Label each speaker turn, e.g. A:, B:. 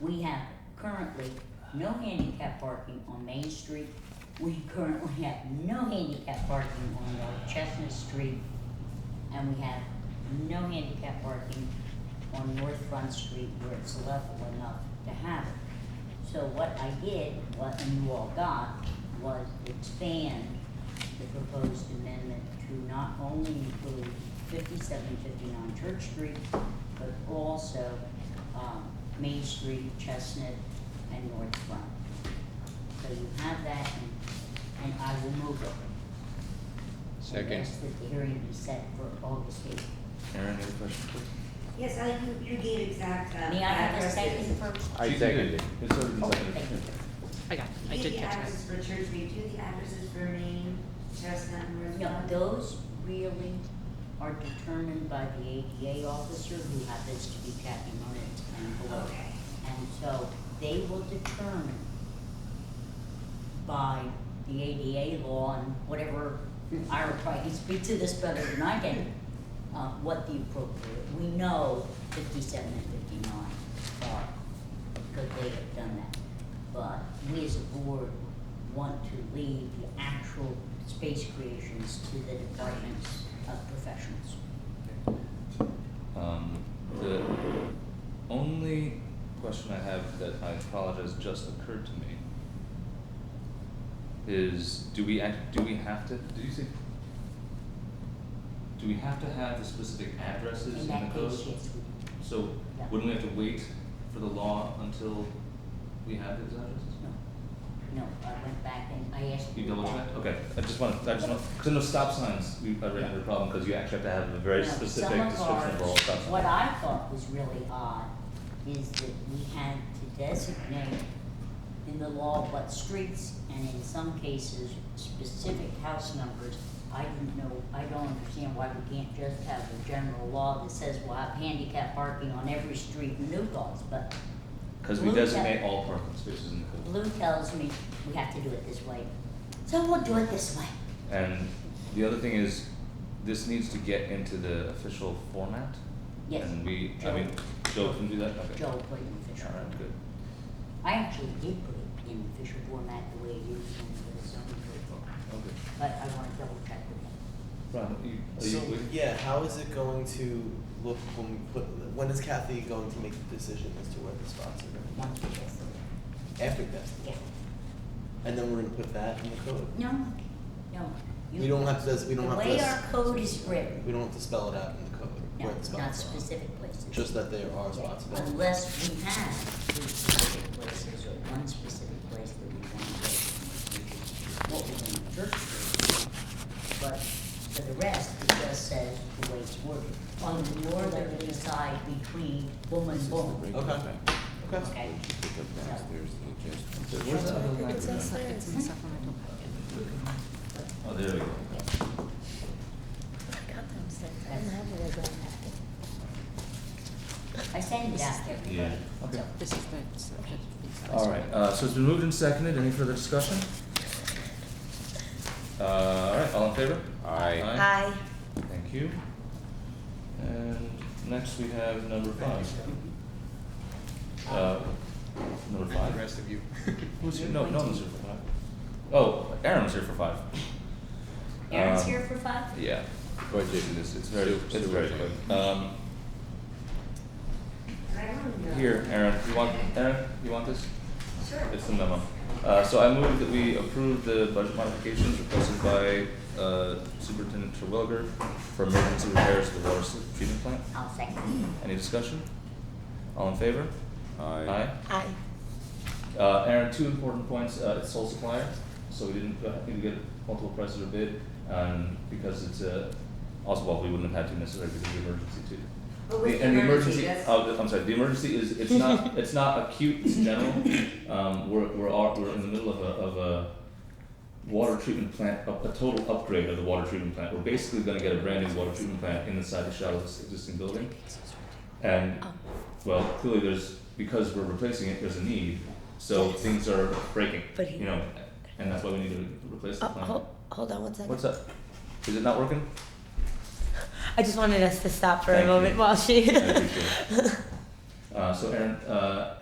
A: We have currently no handicap parking on Main Street. We currently have no handicap parking on North Chestnut Street. And we have no handicap parking on North Front Street where it's level enough to have it. So what I did, what you all got, was expand the proposed amendment to not only include fifty-seven fifty-nine Church Street, but also, um, Main Street, Chestnut, and North Front. So you have that, and, and I will move it.
B: Second.
A: I ask that the hearing be set for August eighth.
C: Karen, any questions?
D: Yes, I, you- you gave exact, uh.
A: May I have a
D: addresses.
A: second first?
C: I
B: She did.
C: second it. It's already been
A: Oh,
C: seconded.
A: thank you.
E: I got, it. I
D: You
E: did
D: gave the
E: catch
D: addresses
E: that.
D: for church, we do the addresses for Maine, Chestnut, and Roosevelt.
A: No, those really are determined by the ADA officer who happens to be Kathy Moritz and below.
D: Okay.
A: And so they will determine by the ADA law and whatever, Ira probably can speak to this better than I can, uh, what the appropriate, we know fifty-seven and fifty-nine are, because they have done that. But we as a board want to leave the actual space creations to the departments of professionals.
C: Um, the only question I have that I apologize just occurred to me is do we act, do we have to, did you say? Do we have to have the specific addresses in
A: In
C: the
A: that
C: code?
A: case, yes, we,
C: So
A: Yeah.
C: wouldn't we have to wait for the law until we have those addresses?
A: no, no, I went back and I asked.
C: You
A: you
C: double
A: that.
C: checked? Okay, I just want, I just want, cause I know stop signs, we, I ran into a problem, cause you actually have to have a very
A: Now,
C: specific
A: some of
C: description of all
A: ours-
C: stop signs.
A: What I thought was really odd is that we had to designate in the law what streets and in some cases specific house numbers. I didn't know, I don't understand why we can't just have a general law that says we'll have handicap parking on every street in New Paltz, but
C: Cause we
A: Blue tag.
C: designate all parking spaces in the code.
A: Blue tells me we have to do it this way. So we'll do it this way.
C: And the other thing is, this needs to get into the official format.
A: Yes.
C: And we, I mean, Joe can do that, okay.
A: Joe put it in official.
C: Alright, good.
A: I actually did put it in official format the way it is in the zoning code book.
C: Okay.
A: But I wanna double check with him.
C: Ron, you, are
F: So
C: you with?
F: yeah, how is it going to look when we put? When is Kathy going to make the decision as to where the spots are going?
A: once we get through
F: After Kathy,
A: it. Yeah.
F: and then we're going to put that in the code.
A: No, no. you-
F: We don't have to. We don't
A: The
F: have to.
A: way our code is written,
F: We don't have to spell it out in the code
A: no,
F: where the
A: not
F: spots are.
A: specific places.
F: Just that there are
A: Yeah,
F: spots available.
A: Unless we have two specific places or one specific place that we want to go, to, what we want to church. do. But for the rest, it just says the way it's worded. On the northern side between woman, woman.
F: Okay. Okay.
A: Okay.
C: Where's the other
E: It's in,
C: language?
E: su- it's in the supplemental packet.
C: Oh, there we go.
A: I send it out every
C: Yeah,
A: day.
C: okay.
E: This is the, so that's.
C: Alright, uh, so it's been moved and seconded, any further discussion? Uh, alright, all in favor?
B: Aye.
C: Aye. Thank you. And next we have number five. Uh, number
B: The
C: five?
B: rest of you.
C: Who's here? No, no one's here for five. Oh, Aaron's here for five.
A: Aaron's
C: Um,
A: here for five?
C: Yeah.
B: Budget.
C: This- It's very,
B: Sewer-
C: it's very
B: sewer.
C: quick. Um,
D: And I don't know.
C: here, Aaron, you want, Aaron, you want this?
D: Sure.
C: It's the memo. Uh, so I move that we approve the budget modifications requested by, uh, Superintendent Terwilliger for emergency repairs to the water se- treatment plant.
A: I'll second.
C: Any discussion? All in favor?
B: Aye.
C: Aye.
G: Oh,
C: Uh, Aaron, two important points, uh, it's sole supplier, so we didn't, go- didn't get multiple prices or bid, um, because it's, uh, also, well, we wouldn't have had to necessarily because of the emergency too.
D: But with
C: The- and the
D: emergency,
C: emergency,
D: that's-
C: oh, the- I'm sorry, the emergency is, it's not, it's not acute, it's general, um, we're, we're all, we're in the middle of a, of a water treatment plant, a, a total upgrade of the water treatment plant, we're basically gonna get a brand new water treatment plant inside the Shallows existing building. And, well, clearly there's, because we're replacing it, there's a need, so things are breaking,
G: But he-
C: you know, and that's why we need to replace the
G: Oh,
C: plant.
G: hold, hold on one second.
C: What's up? Is it not working?
G: I just wanted us to stop for
C: Thank
G: a
C: you.
G: moment while she.
C: I appreciate it. Uh, so Aaron, uh,